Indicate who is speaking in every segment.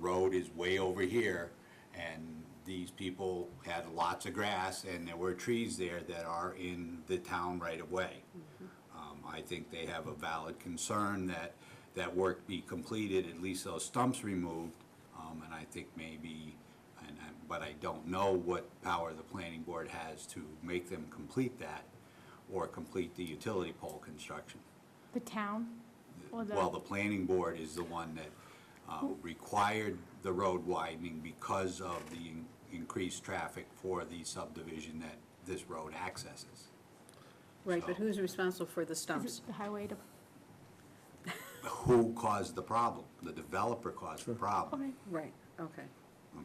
Speaker 1: road is way over here, and these people had lots of grass, and there were trees there that are in the town right of way. Um, I think they have a valid concern that that work be completed, at least those stumps removed, um, and I think maybe, and, I- but I don't know what power the planning board has to make them complete that or complete the utility pole construction.
Speaker 2: The town? Or the-
Speaker 1: Well, the planning board is the one that uh, required the road widening because of the in- increased traffic for the subdivision that this road accesses.
Speaker 3: Right, but who's responsible for the
Speaker 2: Is
Speaker 3: stumps?
Speaker 2: it the highway to,
Speaker 1: Who caused the problem? The developer caused the problem,
Speaker 2: okay,
Speaker 3: Right, okay.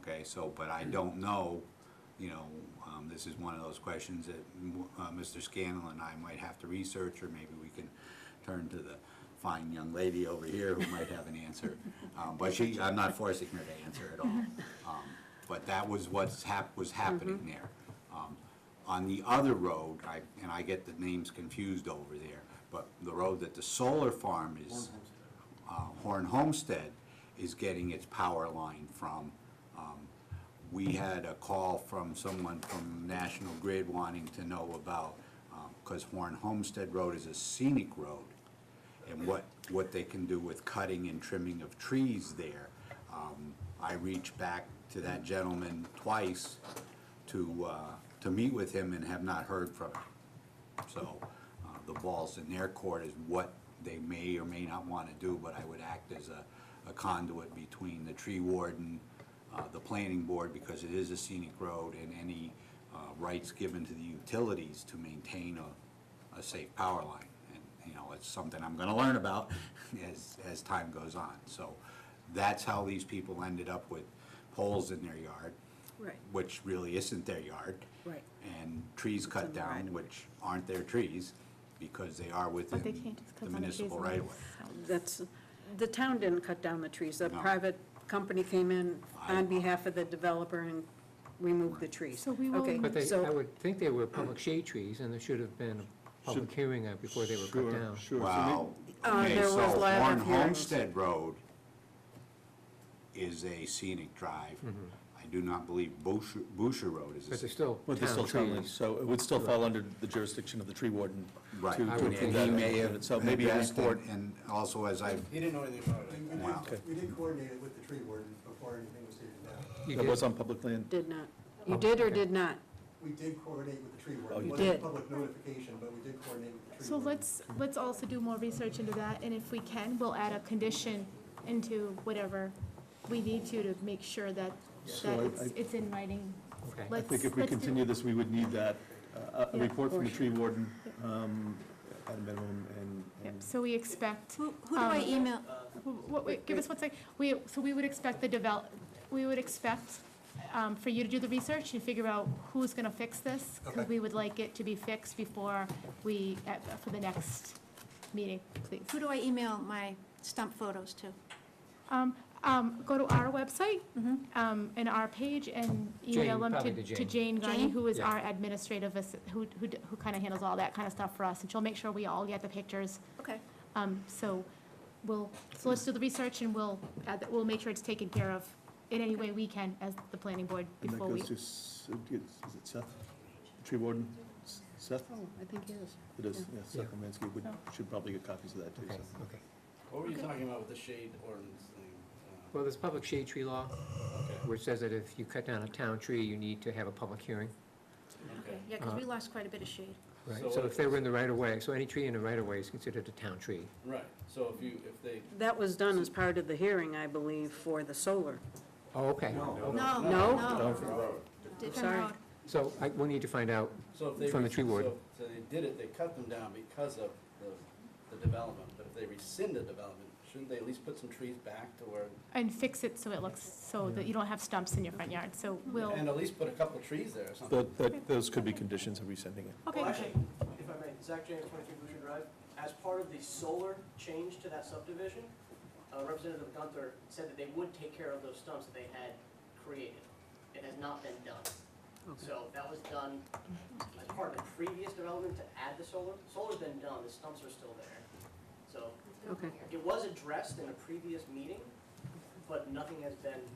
Speaker 1: okay? So, but I don't know, you know, um, this is one of those questions that uh, Mr. Scanlon and I might have to research, or maybe we can turn to the fine young lady over here who might have an answer. Um, But she, I'm not forcing her to answer at all. Um, But that was what's hap, was happening there. Um, On the other road, I, and I get the names confused over there, but the road that the solar farm is, uh, Horn Homestead is getting its power line from, um, we had a call from someone from National Grid wanting to know about, because Horn Homestead Road is a scenic road, and what, what they can do with cutting and trimming of trees there. Um, I reached back to that gentleman twice to, uh, to meet with him and have not heard from him. So uh, the ball's in their court is what they may or may not want to do, but I would act as a a conduit between the tree warden, uh, the planning board, because it is a scenic road, and any uh, rights given to the utilities to maintain a, a safe power line. And, you know, it's something I'm going to learn about as, as time goes on. So that's how these people ended up with poles in their yard,
Speaker 3: Right,
Speaker 1: which really isn't their yard
Speaker 3: right.
Speaker 1: and trees
Speaker 3: in
Speaker 1: cut
Speaker 3: the right
Speaker 1: down,
Speaker 3: of
Speaker 1: which aren't their trees, because they are within
Speaker 2: but they can't just
Speaker 1: the
Speaker 2: because on the trees.
Speaker 1: municipal
Speaker 2: and
Speaker 1: right of way.
Speaker 2: leaves, so.
Speaker 3: That's, the town didn't cut down the trees. A
Speaker 1: No.
Speaker 3: private company came in
Speaker 1: I-
Speaker 3: on behalf of the developer and removed the trees.
Speaker 2: So we will
Speaker 3: Okay,
Speaker 2: need-
Speaker 4: But they,
Speaker 3: so-
Speaker 4: I would think they were public shade trees, and there should have been a public hearing uh, before they were cut down.
Speaker 5: Sure, sure.
Speaker 1: Wow,
Speaker 3: Uh,
Speaker 1: okay,
Speaker 3: there
Speaker 1: so
Speaker 3: was a lot of
Speaker 1: Warren
Speaker 3: hearings.
Speaker 1: Homestead Road is a scenic drive. I do not believe Boucher, Boucher Road is a
Speaker 4: Mm-hmm. But they're
Speaker 1: scenic.
Speaker 4: still
Speaker 5: But they're still
Speaker 4: town
Speaker 5: town lands,
Speaker 4: trees.
Speaker 5: so it would still fall under the jurisdiction of the tree warden.
Speaker 1: Right,
Speaker 5: to-
Speaker 1: and
Speaker 5: to
Speaker 4: would
Speaker 5: approve
Speaker 4: think
Speaker 1: he
Speaker 5: that
Speaker 1: may
Speaker 5: application.
Speaker 1: have.
Speaker 5: So maybe a
Speaker 1: addressed it,
Speaker 5: report,
Speaker 1: And also, as I've,
Speaker 6: He didn't know anything about it.
Speaker 7: We
Speaker 1: Wow.
Speaker 7: did, we did coordinate it with the tree warden before anything was taken down.
Speaker 4: You
Speaker 5: that
Speaker 4: did-
Speaker 5: was on public land.
Speaker 3: Did not.
Speaker 4: Oh,
Speaker 3: You did or did not?
Speaker 7: We did coordinate with the tree
Speaker 5: Oh,
Speaker 7: warden.
Speaker 5: you
Speaker 7: It wasn't
Speaker 3: did.
Speaker 7: public notification, but we did coordinate with the tree warden.
Speaker 2: So let's, let's also do more research into that, and if we can, we'll add a condition into whatever we need to to make sure that,
Speaker 5: So
Speaker 2: that
Speaker 5: I-
Speaker 2: it's,
Speaker 5: I-
Speaker 2: it's in writing.
Speaker 4: Okay. I
Speaker 5: I
Speaker 2: Let's-
Speaker 5: think if we
Speaker 2: let's do-
Speaker 5: continue this, we would need that, uh, a
Speaker 2: Yeah.
Speaker 5: report from the tree warden um, at a minimum, and-
Speaker 2: Yep,
Speaker 5: and
Speaker 2: so we expect.
Speaker 8: Who who do I
Speaker 2: Um,
Speaker 8: email?
Speaker 2: Wh- What, wait, give us one sec. We, so we would expect the develop, we would expect um, for you to do the research and figure out who's going to fix this, because
Speaker 7: Okay.
Speaker 2: we would like it to be fixed before we, at- for the next meeting, please.
Speaker 8: Who do I email my stump photos to?
Speaker 2: Um, um, Go to our website, um, and our page, and email
Speaker 4: Jane,
Speaker 2: them
Speaker 4: probably
Speaker 2: to
Speaker 4: to
Speaker 2: to Jane Gagne,
Speaker 8: Jane?
Speaker 2: who is
Speaker 4: Yeah.
Speaker 2: our administrative, assi- who, who d- who kind of handles all that kind of stuff for us, and she'll make sure we all get the pictures.
Speaker 8: Okay.
Speaker 2: Um, so we'll, so let's do the research and we'll add, that- we'll make sure it's taken care of in any way we can as the planning board
Speaker 5: and that
Speaker 2: before we.
Speaker 5: goes to, S- is it Seth? The Tree warden, S- Seth?
Speaker 3: Oh, I think it is.
Speaker 5: It is, yeah, Seth
Speaker 4: Yeah. Oh.
Speaker 5: Kaminsky, would, should probably get copies of that too.
Speaker 4: Okay,
Speaker 5: so.
Speaker 4: okay.
Speaker 6: What were you talking about with the shade ordinance thing? Uh,
Speaker 4: Well, there's public shade tree law,
Speaker 6: Okay,
Speaker 4: which says that if you cut down a town tree, you need to have a public hearing.
Speaker 6: okay.
Speaker 8: Yeah, because we lost quite a bit of shade.
Speaker 4: Right,
Speaker 6: So
Speaker 4: so
Speaker 6: what-
Speaker 4: if they were in the right of way, so any tree in the right of way is considered a town tree.
Speaker 6: Right, so if you, if they,
Speaker 3: That was done as part of the hearing, I believe, for the solar.
Speaker 4: Oh, okay.
Speaker 8: No,
Speaker 3: No?
Speaker 8: no.
Speaker 3: Sorry.
Speaker 8: Different road.
Speaker 4: So I, we'll need to find out,
Speaker 6: so if they.
Speaker 4: From the tree ward.
Speaker 6: so- So they did it, they cut them down because of the, the development, but if they rescind the development, shouldn't they at least put some trees back to where?
Speaker 2: And fix it so it looks, so that you don't have stumps in your front yard, so we'll,
Speaker 6: And at least put a couple trees there or something.
Speaker 5: Tho- that- Those could be conditions of resending it.
Speaker 2: okay.
Speaker 9: Well, actually, if I may, Zach James, 23 Boucher Drive. As part of the solar change to that subdivision, uh, Representative Gunther said that they would take care of those stumps that they had created. It has not been done. So that was done as part of the previous development to add the solar. Solar's been done, the stumps are still there. So
Speaker 3: Okay.
Speaker 9: it was addressed in a previous meeting, but nothing has been